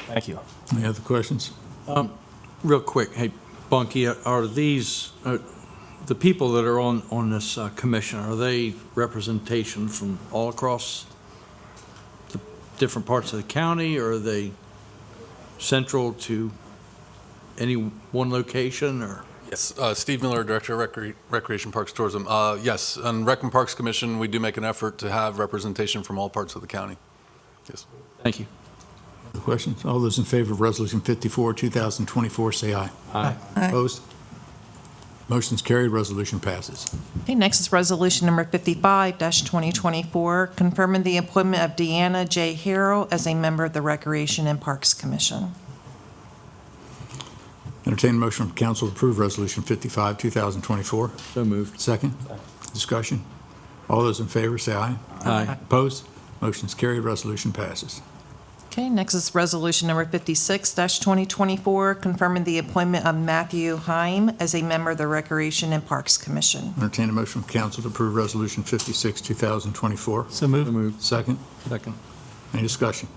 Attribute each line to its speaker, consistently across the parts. Speaker 1: Thank you.
Speaker 2: Any other questions?
Speaker 3: Real quick, hey, Bunky, are these, are the people that are on, on this uh, commission, are they representation from all across the different parts of the county, or are they central to any one location, or?
Speaker 4: Yes, uh, Steve Miller, Director of Recre- Recreation Parks Tourism. Uh, Yes, on Rec and Parks Commission, we do make an effort to have representation from all parts of the county. Yes.
Speaker 3: Thank you.
Speaker 2: Other Questions? All those in favor of Resolution 54, 2024, say aye.
Speaker 5: Aye.
Speaker 2: Opposed? Motion's carried, resolution passes.
Speaker 5: Okay, next is Resolution Number 55-2024, confirming the appointment of Deanna J. Harrell as a member of the Recreation and Parks Commission.
Speaker 2: Entertained motion from council to approve Resolution 55, 2024.
Speaker 3: So moved.
Speaker 2: Second? Discussion? All those in favor, say aye.
Speaker 3: Aye.
Speaker 2: Opposed? Motion's carried, resolution passes.
Speaker 5: Okay, next is Resolution Number 56-2024, confirming the appointment of Matthew Heim as a member of the Recreation and Parks Commission.
Speaker 2: Entertained motion from council to approve Resolution 56, 2024.
Speaker 3: So moved.
Speaker 2: Second?
Speaker 3: Second.
Speaker 2: Any discussion?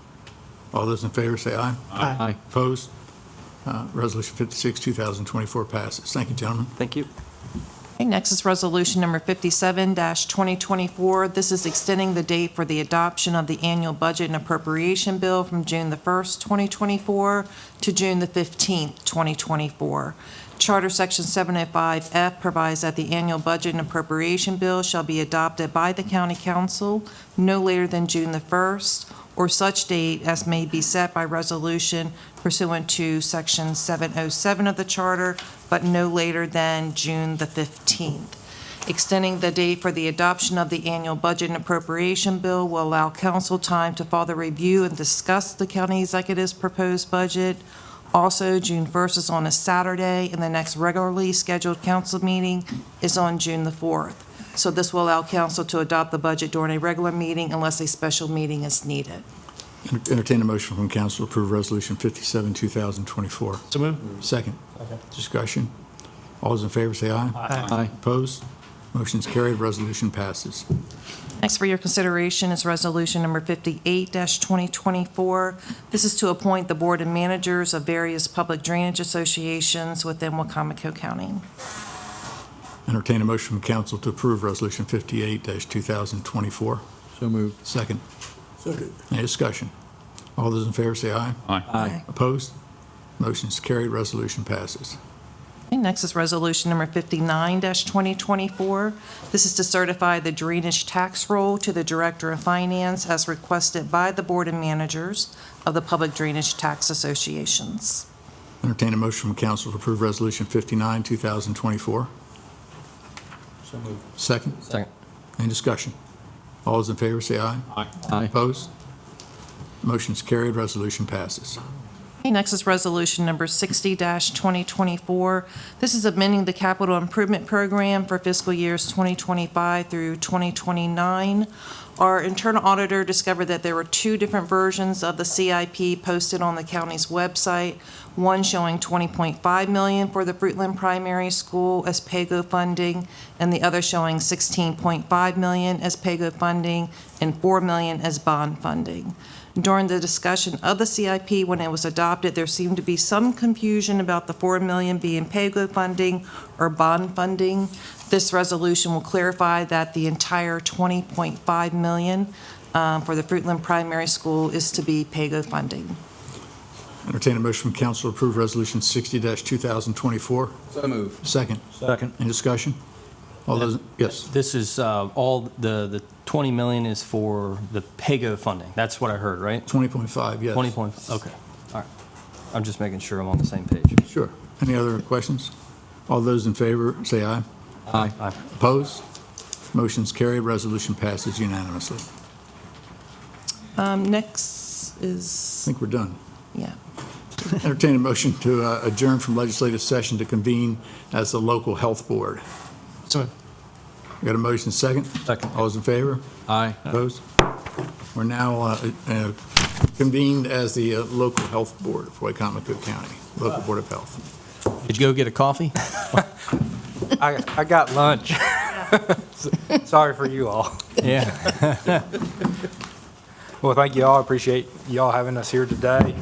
Speaker 2: All those in favor, say aye.
Speaker 3: Aye.
Speaker 2: Opposed? Uh, Resolution 56, 2024 passes. Thank you, gentlemen.
Speaker 6: Thank you.
Speaker 5: Okay, next is Resolution Number 57-2024. This is extending the date for the adoption of the annual budget and appropriation bill from June the 1st, 2024 to June the 15th, 2024. Charter Section 705F provides that the annual budget and appropriation bill shall be adopted by the county council no later than June the 1st or such date as may be set by resolution pursuant to Section 707 of the charter, but no later than June the 15th. Extending the date for the adoption of the annual budget and appropriation bill will allow council time to further review and discuss the county executive's proposed budget. Also, June 1st is on a Saturday, and the next regularly scheduled council meeting is on June the 4th. So this will allow council to adopt the budget during a regular meeting unless a special meeting is needed.
Speaker 2: Entertain a motion from council to approve Resolution 57, 2024.
Speaker 1: So moved.
Speaker 2: Second. Discussion. All those in favor, say aye.
Speaker 3: Aye.
Speaker 2: Opposed? Motion's carried, resolution passes.
Speaker 5: Next for your consideration is Resolution Number 58-2024. This is to appoint the board and managers of various public drainage associations within Wacomico County.
Speaker 2: Entertain a motion from council to approve Resolution 58-2024.
Speaker 3: So moved.
Speaker 2: Second. Second. Any discussion? All those in favor, say aye.
Speaker 5: Aye.
Speaker 2: Opposed? Motion's carried, resolution passes.
Speaker 5: Okay, Next is Resolution Number 59-2024. This is to certify the drainage tax roll to the Director of Finance as requested by the board and managers of the public drainage tax associations.
Speaker 2: Entertain a motion from council to approve Resolution 59, 2024. Second?
Speaker 6: Second.
Speaker 2: Any discussion? All those in favor, say aye.
Speaker 3: Aye.
Speaker 2: Opposed? Motion's carried, resolution passes.
Speaker 5: Okay, next is Resolution Number 60-2024. This is amending the capital improvement program for fiscal years 2025 through 2029. Our internal auditor discovered that there were two different versions of the CIP posted on the county's website, one showing 20.5 million for the Fruitland Primary School as PAGO funding, and the other showing 16.5 million as PAGO funding and 4 million as bond funding. During the discussion of the CIP when it was adopted, there seemed to be some confusion about the 4 million being PAGO funding or bond funding. This resolution will clarify that the entire 20.5 million um, for the Fruitland Primary School is to be PAGO funding.
Speaker 2: Entertain a motion from council to approve Resolution 60-2024.
Speaker 6: So moved.
Speaker 2: Second.
Speaker 3: Second.
Speaker 2: Any discussion? All those, yes.
Speaker 1: This is uh, all, the, the 20 million is for the PEGO funding. That's what I heard, right?
Speaker 2: 20.5, yes.
Speaker 1: 20 point, okay. All right. I'm just making sure I'm on the same page.
Speaker 2: Sure. Any other questions? All those in favor, say aye.
Speaker 3: Aye.
Speaker 1: Aye.
Speaker 2: Opposed? Motion's carried, resolution passes unanimously. I
Speaker 5: Um, Next is,
Speaker 2: think we're done.
Speaker 5: yeah.
Speaker 2: Entertain a motion to uh, adjourn from legislative session to convene as the local health board.
Speaker 1: So moved.
Speaker 2: We Got a motion second?
Speaker 1: Second.
Speaker 2: All those in favor?
Speaker 3: Aye.
Speaker 2: Opposed? We're now uh, uh, convened as the uh, local health board of Wycomico County, local board of health.
Speaker 1: Did you go get a coffee?
Speaker 6: I, I got lunch. Sorry for you all.
Speaker 1: Yeah.
Speaker 6: Well, thank you all. I Appreciate y'all having us here today.